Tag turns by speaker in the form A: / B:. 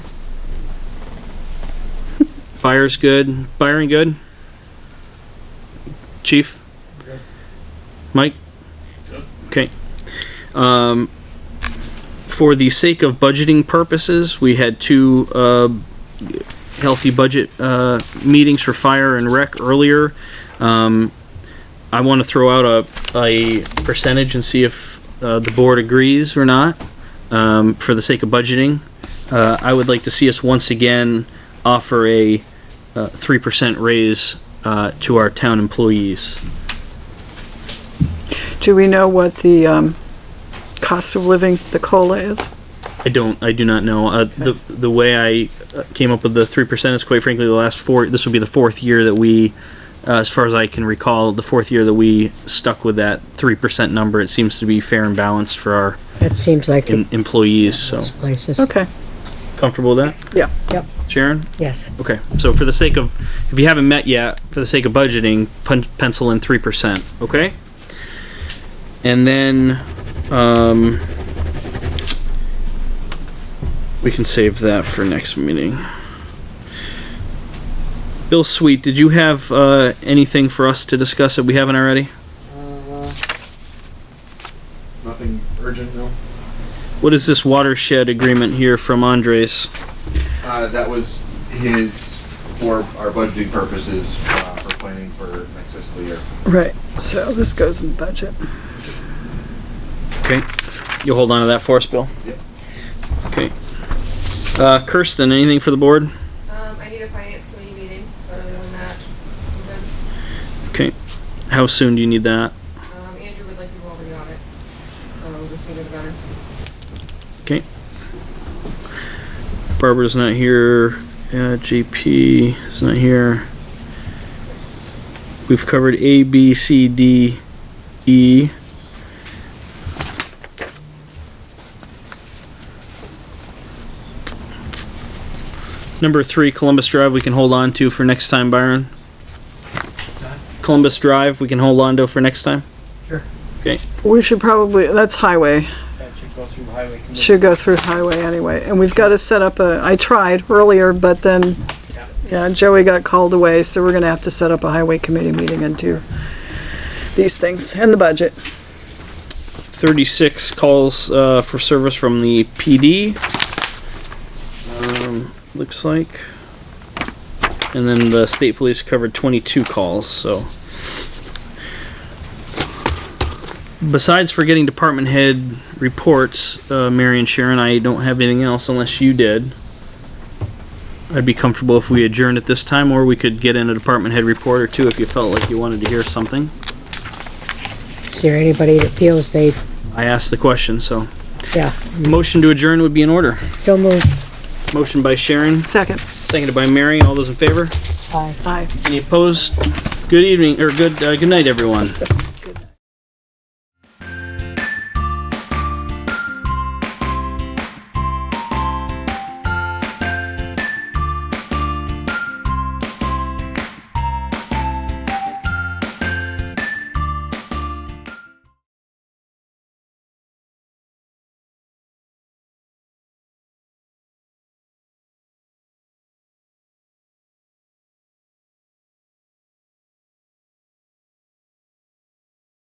A: Fire's good. Byron good. Chief. Mike. Okay. Um, for the sake of budgeting purposes, we had two uh, healthy budget uh, meetings for fire and rec earlier. Um, I want to throw out a, a percentage and see if uh, the board agrees or not um, for the sake of budgeting. Uh, I would like to see us once again offer a uh, three percent raise uh, to our town employees.
B: Do we know what the um, cost of living, the COLA is?
A: I don't. I do not know. Uh, the the way I uh, came up with the three percent is quite frankly the last four. This would be the fourth year that we, uh, as far as I can recall, the fourth year that we stuck with that three percent number. It seems to be fair and balanced for our
C: It seems like
A: em-
C: it
A: employees. So
C: places.
B: Okay,
A: comfortable with that,
B: yeah.
C: Yep,
A: Sharon?
C: yes.
A: Okay. So for the sake of, if you haven't met yet, for the sake of budgeting, pen- pencil in three percent. Okay. And then, um, we can save that for next meeting. Bill Sweet, did you have uh, anything for us to discuss that we haven't already?
D: Nothing urgent, no.
A: What is this watershed agreement here from Andres?
D: Uh, that was his, for our budgeting purposes, uh, for planning for next fiscal year.
B: Right, so this goes in budget.
A: Okay. You'll hold on to that for us, Bill?
D: Yep.
A: Okay. Uh, Kirsten, anything for the board?
E: Um, I need a finance committee meeting, but other than that, I'm good.
A: Okay. How soon do you need that?
E: Um, Andrew would like to go over the audit, so the sooner the better.
A: Okay. Barbara's not here. Uh, JP is not here. We've covered A, B, C, D, E. Number three, Columbus Drive, we can hold on to for next time, Byron. Columbus Drive, we can hold on to for next time.
B: We should probably, that's highway,
F: That should go through highway commission.
B: should go through highway anyway. And we've got to set up a, I tried earlier, but then, yeah, Joey got called away, so we're going to have to set up a highway committee meeting and do these things, and the budget.
A: 36 calls uh, for service from the PD. Um, looks like. And then the state police covered 22 calls, so. Besides forgetting department head reports, uh, Mary and Sharon, I don't have anything else unless you did. I'd be comfortable if we adjourned at this time, or we could get in a department head report or two if you felt like you wanted to hear something.
C: Is there anybody that feels they,
A: I asked the question, so.
C: yeah,
A: Motion to adjourn would be in order.
C: so moved.
A: Motion by Sharon,
B: Second,
A: seconded by Mary. All those in favor?
C: Aye.
B: aye.
A: Any opposed? Good evening, or good, uh, good night, everyone.